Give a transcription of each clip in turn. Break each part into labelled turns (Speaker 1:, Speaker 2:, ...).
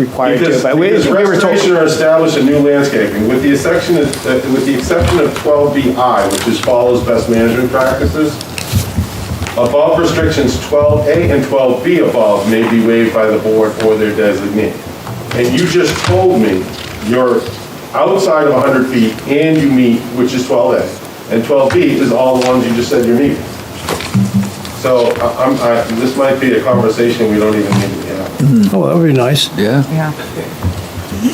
Speaker 1: required to,
Speaker 2: Because
Speaker 1: but we
Speaker 2: because
Speaker 1: we were
Speaker 2: restoration
Speaker 1: told.
Speaker 2: or establish a new landscaping, with the exception of, uh, with the exception of 12BI, which is follows best management practices, above restrictions 12A and 12B above may be waived by the board or their designee. And you just told me you're outside of 100 feet and you meet, which is 12A, and 12B is all the ones you just said you're meeting. So I- I'm, I, this might be a conversation we don't even need to have.
Speaker 3: Oh, that would be nice.
Speaker 4: Yeah.
Speaker 5: Yeah,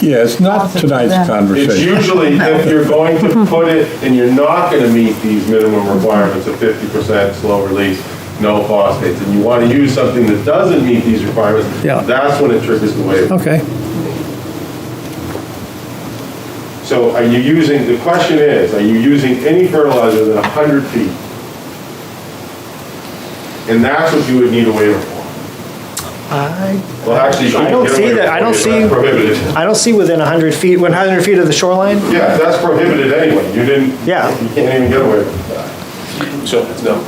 Speaker 6: Yeah, it's not tonight's
Speaker 2: It's
Speaker 6: conversation.
Speaker 2: usually if you're going to put it and you're not gonna meet these minimum requirements of fifty percent slow release, no phosphates, and you wanna use something that doesn't meet these requirements,
Speaker 3: Yeah.
Speaker 2: that's when it triggers the waiver.
Speaker 3: Okay.
Speaker 2: So are you using, the question is, are you using any fertilizer than hundred feet? And that's what you would need a waiver for.
Speaker 3: I,
Speaker 2: Well, actually. you
Speaker 3: I don't
Speaker 2: couldn't get a
Speaker 3: see
Speaker 2: waiver
Speaker 3: that- I
Speaker 2: for
Speaker 3: don't
Speaker 2: it,
Speaker 3: see-
Speaker 2: that's Prohibited.
Speaker 3: I don't see within 100 feet, 100 feet of the shoreline?
Speaker 2: Yeah, that's prohibited anyway. You didn't.
Speaker 3: Yeah.
Speaker 2: You can't even get away with that. So, no.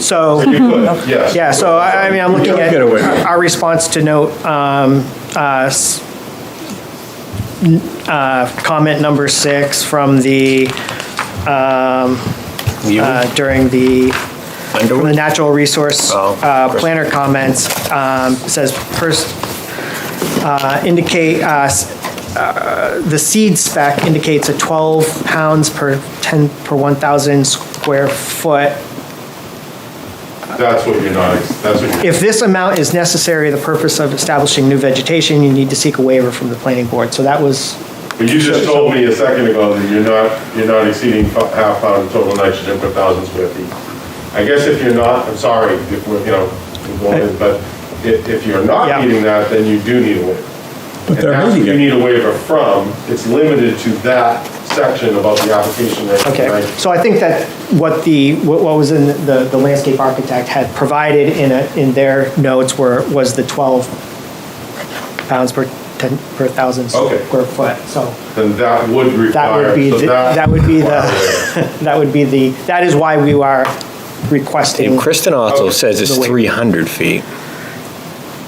Speaker 3: So,
Speaker 2: You could, yes.
Speaker 3: yeah, so I I mean, I'm
Speaker 6: You
Speaker 3: looking
Speaker 6: don't
Speaker 3: at
Speaker 6: get away with it.
Speaker 3: our response to note, um, uh, s- n- uh, comment number six from the, um, uh, during the From the natural resource
Speaker 6: Oh,
Speaker 3: uh, planner comments, um, says, pers- uh, indicate, uh, s- uh, the seed spec indicates a 12 pounds per 10, per 1,000 square foot.
Speaker 2: That's what you're not, ex- that's what you're,
Speaker 3: If this amount is necessary, the purpose of establishing new vegetation, you need to seek a waiver from the planning board. So that was,
Speaker 2: but you just told me a second ago that you're not, you're not exceeding fi- half pound of total nitrogen per thousand square feet. I guess if you're not, I'm sorry, if we're, you know, we're going in, but if, if you're
Speaker 3: Yeah.
Speaker 2: not meeting that, then you do need a waiver.
Speaker 6: But
Speaker 2: And
Speaker 6: they're
Speaker 2: that's what you
Speaker 6: meeting it.
Speaker 2: need a waiver from, it's limited to that section about the application right?
Speaker 3: okay.
Speaker 2: right?
Speaker 3: So I think that what the, what what was in the, the landscape architect had provided in a, in their notes were, was the 12 pounds per 10, per 1,000
Speaker 2: Okay.
Speaker 3: square foot. So
Speaker 2: Then that would
Speaker 3: that
Speaker 2: require,
Speaker 3: would be,
Speaker 2: so
Speaker 3: the-
Speaker 2: that.
Speaker 3: that would be
Speaker 2: requires a waiver.
Speaker 3: the, that would be the, that is why we are requesting.
Speaker 7: And Kristen also
Speaker 2: Okay.
Speaker 7: says it's
Speaker 3: Mm. The way-
Speaker 7: 300 feet.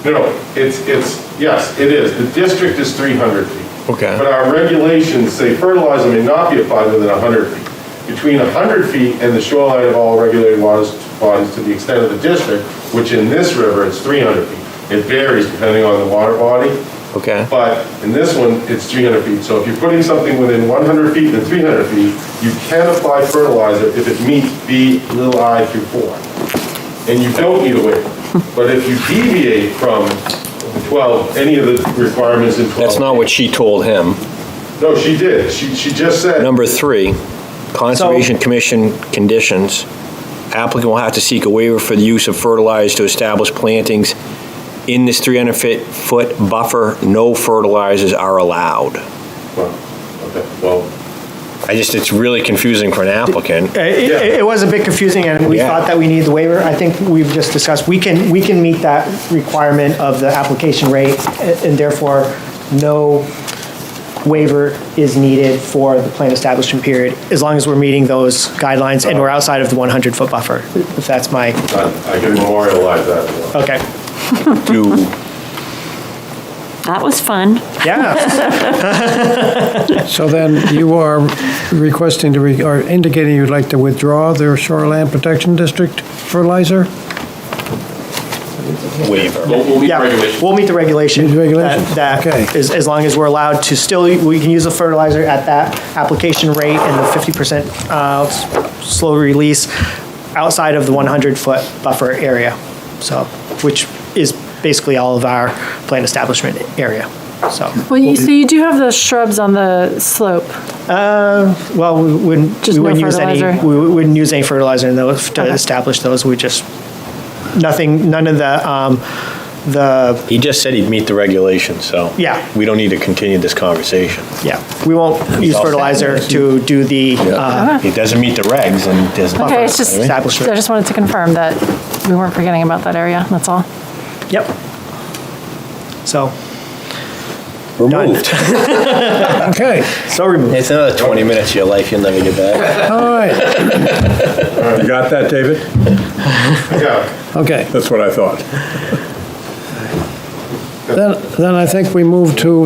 Speaker 2: No, no, it's, it's, yes, it is. The district is 300 feet.
Speaker 7: Okay.
Speaker 2: But our regulations say fertilizer may not be applied within 100 feet. Between 100 feet and the shoreline of all regulated waters, bodies to the extent of the district, which in this river is 300 feet. It varies depending on the water body,
Speaker 7: Okay.
Speaker 2: but in this one, it's 300 feet. So if you're putting something within 100 feet and 300 feet, you can apply fertilizer if it meets B little i through 4 and you don't need a waiver. But if you deviate from 12, any of the requirements in 12.
Speaker 7: That's not what she told him.
Speaker 2: No, she did. She, she just said,
Speaker 7: Number three, Conservation Commission conditions. Applicant will have to seek a waiver for the use of fertilizer to establish plantings in this 300-foot buffer. No fertilizers are allowed.
Speaker 2: well, okay, well,
Speaker 7: I just, it's really confusing for an applicant.
Speaker 3: Uh, It, it- it was a bit confusing and we
Speaker 7: Yeah.
Speaker 3: thought that we needed the waiver. I think we've just discussed, we can, we can meet that requirement of the application rate a- and therefore no waiver is needed for the plan establishment period as long as we're meeting those guidelines and we're outside of the 100-foot buffer, if that's my,
Speaker 2: I I can memorialize that. as well.
Speaker 3: okay.
Speaker 7: Do,
Speaker 8: That was fun.
Speaker 3: Yeah,
Speaker 1: So then you are requesting to, re- or indicating you'd like to withdraw their shoreline protection district fertilizer?
Speaker 7: waiver.
Speaker 3: yeah. We'll meet the regulation.
Speaker 1: Meet the regulation.
Speaker 3: That,
Speaker 1: Okay.
Speaker 3: that is, as long as we're allowed to still, we can use the fertilizer at that application rate and the 50% uh, s- slow release outside of the 100-foot buffer area, so, which is basically all of our plant establishment area, so.
Speaker 9: Well, you, so you do have the shrubs on the slope.
Speaker 3: Well, we wouldn't,
Speaker 9: Just
Speaker 3: we
Speaker 9: no
Speaker 3: wouldn't use any,
Speaker 9: fertilizer?
Speaker 3: we wouldn't use any fertilizer in those to
Speaker 9: Okay.
Speaker 3: establish those, we just, nothing, none of the, um, the,
Speaker 7: He just said he'd meet the regulations, so.
Speaker 3: Yeah.
Speaker 7: We don't need to continue this conversation.
Speaker 3: yeah, we won't use
Speaker 7: all.
Speaker 3: fertilizer to do the uh,
Speaker 7: He doesn't meet the regs and doesn't.
Speaker 9: Okay, it's just, I
Speaker 3: establishment.
Speaker 9: just wanted to confirm that we weren't forgetting about that area, that's all.
Speaker 3: Yep. So,
Speaker 6: Removed.
Speaker 1: Okay,
Speaker 3: so removed.
Speaker 7: It's another 20 minutes of your life you'll never get back.
Speaker 1: all right,
Speaker 6: You got that, David?
Speaker 2: Yeah,
Speaker 1: okay.
Speaker 6: That's what I thought.
Speaker 1: Then, then I think we move to